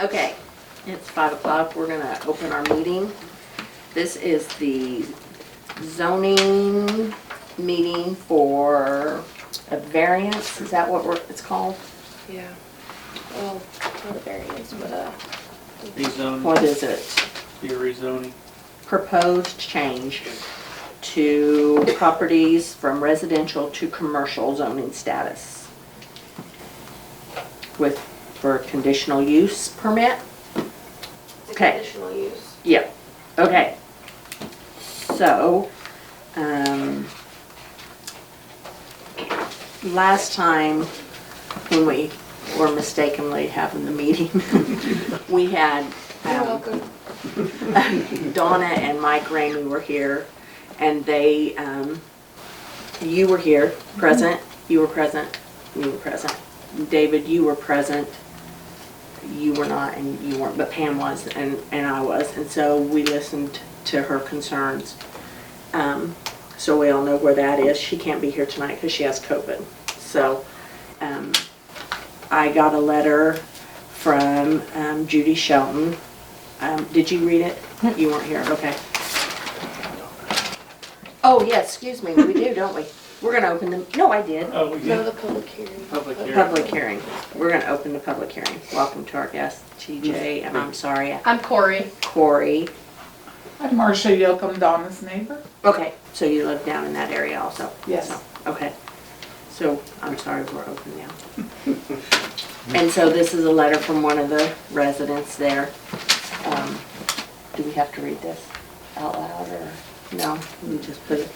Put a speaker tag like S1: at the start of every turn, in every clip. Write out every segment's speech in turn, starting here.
S1: Okay, it's five o'clock, we're gonna open our meeting. This is the zoning meeting for a variance, is that what we're- it's called?
S2: Yeah. Well, not a variance, but uh,
S1: What
S3: Rezoning,
S1: is it?
S3: be rezoning.
S1: Proposed change to properties from residential to commercial zoning status. With, for conditional use permit?
S2: the
S1: Okay.
S2: conditional use.
S1: Yeah, okay. So, um, last time when we were mistakenly having the meeting, we had um,
S2: You're welcome.
S1: Donna and Mike Ramey were here and they, um, you were here, present, you were present, you were present. David, you were present, you were not, and you weren't, but Pam was, and, and I was, and so we listened to her concerns. Um, so we all know where that is, she can't be here tonight because she has COVID. So, um, I got a letter from um, Judy Shelton. Um, did you read it? You weren't here, okay. Oh, yeah, excuse me, we do, don't we? We're gonna open the, no, I did.
S3: Oh,
S2: No,
S3: yeah,
S2: the public hearing.
S3: Public hearing.
S1: Public hearing. We're gonna open the public hearing. Welcome to our guest, TJ, and I'm sorry, uh,
S4: I'm Corey.
S1: Corey.
S5: I'm Marcia Yocum, Donna's neighbor.
S1: Okay, so you live down in that area also?
S5: Yes.
S1: So, Okay. So, I'm sorry, we're open now. And so this is a letter from one of the residents there. Um, Do we have to read this out loud or? No, we just put it,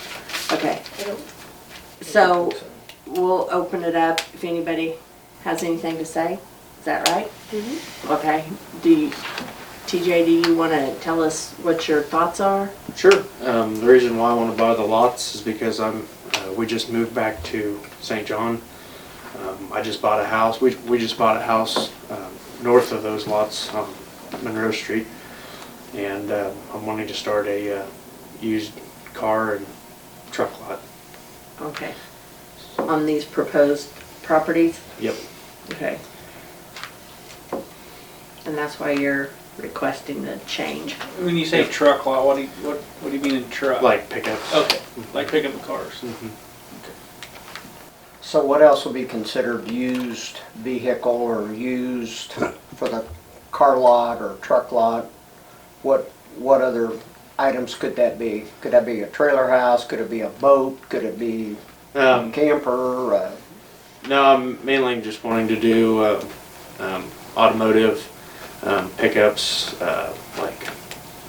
S1: okay.
S2: I don't-
S1: So, we'll open it up if anybody has anything to say. Is that right? Okay. Do you, TJ, do you want to tell us what your thoughts are?
S3: sure. Um, the reason why I wanna buy the lots is because I'm, uh, we just moved back to St. John. Um, I just bought a house, we, we just bought a house, um, north of those lots on Monroe Street. And, uh, I'm wanting to start a, uh, used car and truck lot.
S1: Okay. On these proposed properties?
S3: Yep.
S1: Okay. And that's why you're requesting the change?
S6: When you say truck lot, what do you, what, what do you mean in truck?
S3: Like pickups.
S6: Okay, like picking up cars.
S3: Mhm.
S7: So what else would be considered used vehicle or used for the car lot or truck lot? What, what other items could that be? Could that be a trailer house? Could it be a boat? Could it be
S3: Um,
S7: a camper? Uh,
S3: No, I'm mainly just wanting to do uh, um, automotive um, pickups, uh, like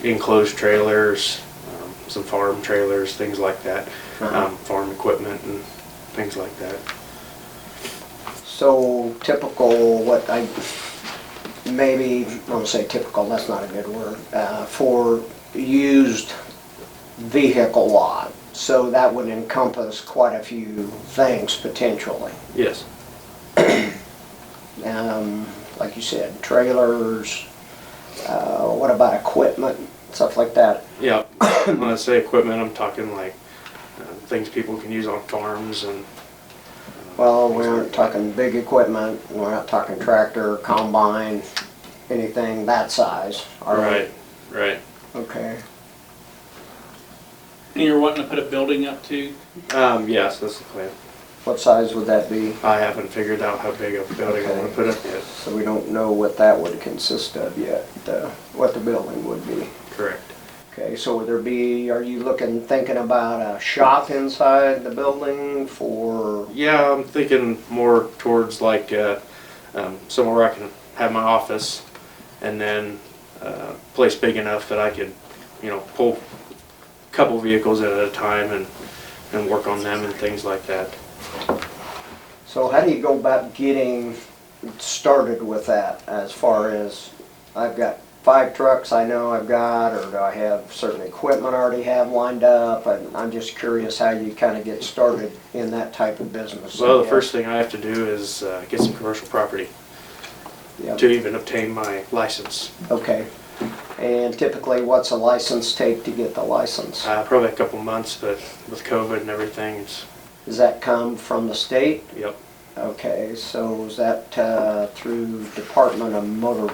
S3: enclosed trailers, um, some farm trailers, things like that,
S7: Uh-huh.
S3: um, farm equipment and things like that.
S7: So typical, what I, maybe, I won't say typical, that's not a good word, uh, for used vehicle lot. So that would encompass quite a few things potentially.
S3: Yes.
S7: um, like you said, trailers, uh, what about equipment, stuff like that?
S3: Yeah. when I say equipment, I'm talking like uh, things people can use on farms and.
S7: Well, we aren't talking big equipment, we're not talking tractor, combine, anything that size, all right?
S3: Right.
S7: Okay.
S6: And you're wanting to put a building up too?
S3: Um, yes, that's the plan.
S7: What size would that be?
S3: I haven't figured out how big a building I want to put up yet.
S7: So we don't know what that would consist of yet, uh, what the building would be.
S3: Correct.
S7: Okay, so would there be, are you looking, thinking about a shop inside the building for
S3: Yeah, I'm thinking more towards like uh, um, somewhere where I can have my office, and then uh, place big enough that I could, you know, pull a couple vehicles at a time and and work on them and things like that.
S7: So how do you go about getting started with that as far as, I've got five trucks I know I've got, or do I have certain equipment I already have lined up? And I'm just curious how you kind of get started in that type of business. I
S3: So the
S7: guess.
S3: first thing I have to do is uh, get some commercial property
S7: Yep,
S3: to even obtain my license.
S7: Okay. And typically, what's a license take to get the license?
S3: Uh, probably a couple months, but with COVID and everything, it's
S7: Does that come from the state?
S3: yep.
S7: Okay, so is that uh, through Department of Motor